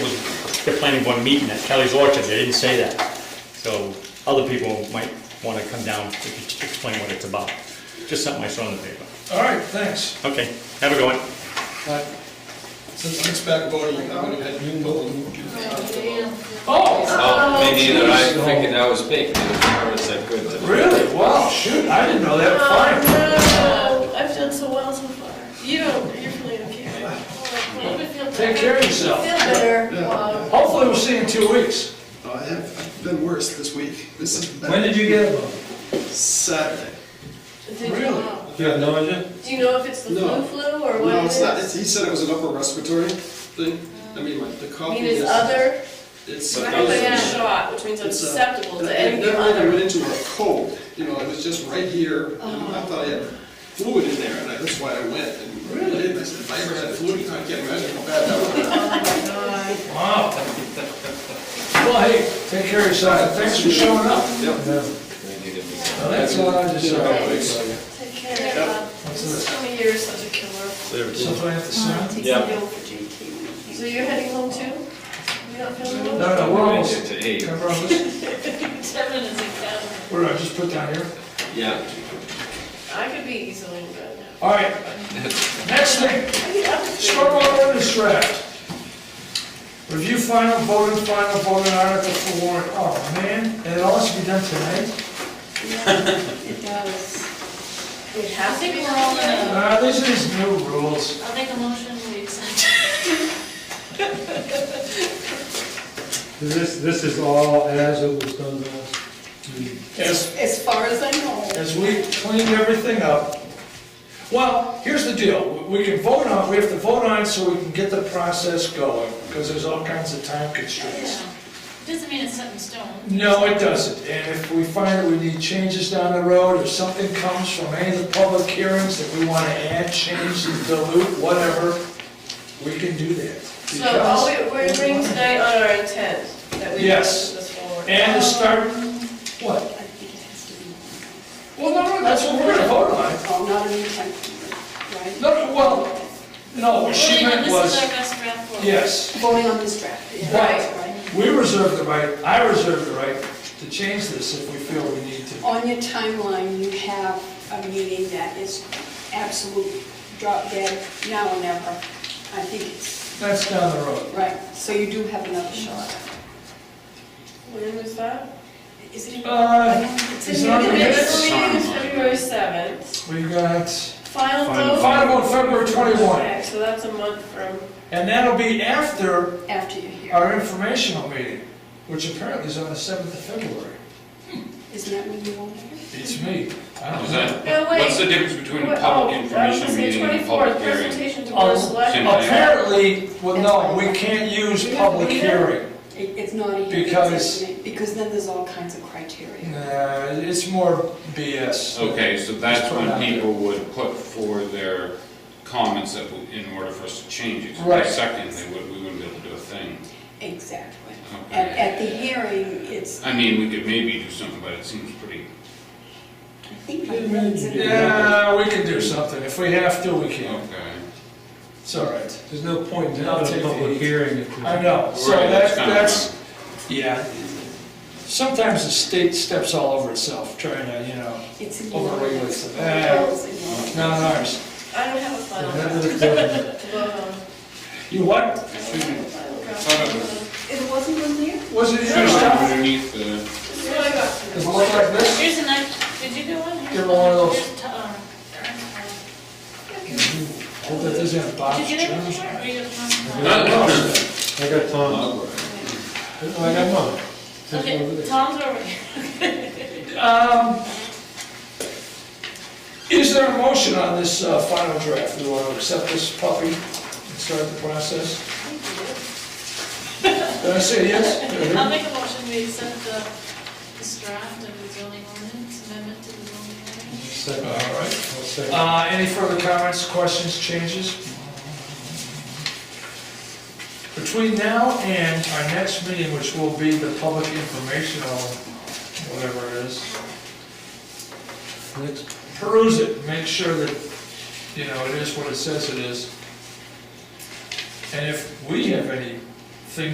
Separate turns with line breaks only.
the planning board meeting at Kelly's Orchard, they didn't say that. So other people might want to come down to explain what it's about. Just something I saw in the paper.
All right, thanks.
Okay, have a good one.
But
Since it's back voting, I would have had you vote.
Oh,
Oh, me neither, I figured that was me, because the cameras that good today.
really? Wow, shoot, I didn't know that. Fine.
Oh, no, I've done so well so far. You don't, you're really okay.
Take care of yourself.
Feel better. um, Wow.
Hopefully we'll see you in two weeks.
Uh, I have, I've been worse this week. This is
When
bad.
did you get it?
Saturday.
Did you
Really?
know?
You have no idea?
uh, Do you know if it's the
No.
flu flu or what
No,
it
it's not,
is?
it's- he said it was an upper respiratory thing. I mean, like, the
I
cough
mean,
is.
it's other,
It's.
I have
it's-
been shot, which means I'm
it's, uh,
susceptible
I-
to
I
anything
never really went
other.
into a cold, you know, it was just right here. and
Uh-huh.
I thought I had fluid in there, and I- that's why I went. And Really? I said, if I ever had fluid, I can't imagine how bad that would be.
Wow. Well, hey, take care of yourself. Thanks for showing up. Well, That's all I just said.
Take care, Bob. This time of year is such a killer.
Something I have to say?
Yeah.
So you're heading home too? You're not feeling
No,
well?
no, we're
Right
almost,
here to eight.
can I borrow this?
Seven is a count.
What did I just put down here?
Yeah.
I could be easily in bed now.
All right. Next thing. Stormwater ordinance draft. Review final vote and final vote on article for warrant. Oh, man, it all has to be done tonight?
It does.
We have to be
Uh, these are these new rules.
I'll make a motion, we accept.
This, this is all as it was done to us.
As,
As far as I know.
as we cleaned everything up. Well, here's the deal. We can vote on, we have to vote on it so we can get the process going, because there's all kinds of time constraints.
Doesn't mean it's set in stone.
No, it doesn't, and if we find that we need changes down the road, if something comes from any of the public hearings that we want to add, change, dilute, whatever, we can do that.
So all we, we're agreeing tonight on our intent, that we move
Yes.
this forward.
And to start, what?
I think it has to be.
Well, no, no, that's what we're gonna vote on.
Oh, not an intent, right?
No, no, well, no, what she meant
This is our
was,
best draft for.
yes,
Voting on this draft. yeah.
Right. we reserve the right, I reserve the right to change this if we feel we need to.
On your timeline, you have a meeting that is absolute drop dead, now or never. I think it's,
That's down the road.
right, so you do have another shot.
When was that?
Is it in?
Uh,
It's
it's
the
not
minutes
minutes.
meeting is February seventh.
We got,
Final
Final-
vote.
final on February twenty-one.
Okay, So that's a month from,
And that'll be after
After you're here.
our informational meeting, which apparently is on the 7th of February.
Isn't that when you want it?
It's me. I don't
Is
know.
that,
no, wait.
what's the difference between a
What-
public
oh, I was
information
gonna say
meeting and a
24th,
public hearing?
Presentation to
Oh,
board of selectmen.
same thing.
Apparently, well, no, we can't use public hearing.
It- It's not a hearing.
Because-
Because then there's all kinds of criteria.
Nah, it's more BS.
Okay, so
Just
that's
put it out
when
there.
people would put forward their comments that, w- in order for us to change it. So
Right.
Second, they would, we wouldn't be able to do a thing.
Exactly.
Okay.
At, at the hearing, it's,
I mean, we could maybe do something, but it seems pretty,
I think.
Wait a minute, you did.
Yeah, we can do something. If we have to, we can.
okay.
It's all right.
There's no point in
I'll
having
take
a
the
public
heat.
hearing if there's.
I know. So
Right,
that's,
that's kinda
that's, yeah. Sometimes the state steps all over itself trying to, you know,
It's in your.
overregulate
eyes.
stuff. Eh,
It's in your eyes.
Not ours.
I don't have a final draft.
Another-
Well,
You what?
final draft.
Thought it
It wasn't in there?
Was it
Should
your
have
stuff?
underneath the,
This is what I got.
Does it look like this?
Here's a knife, did you do one?
Give her one of those.
Here's t- uh,
Hope that doesn't have
Did
box
you get
germs.
it? Or you got one?
No, no.
I got Tom. I got Tom. Just over
Okay,
there.
Tom's over here.
Um, Is there a motion on this uh, final draft? Do you want to accept this puppy and start the process? Did I say
I'll
yes?
make a motion, we accept the, this draft of the zoning ordinance, amendment to the zoning ordinance.
Second.
All right.
I'll second.
Uh, Any further comments, questions, changes? Between now and our next meeting, which will be the public informational, whatever it is,
Next.
peruse it, make sure that, you know, it is what it says it is. And if we have any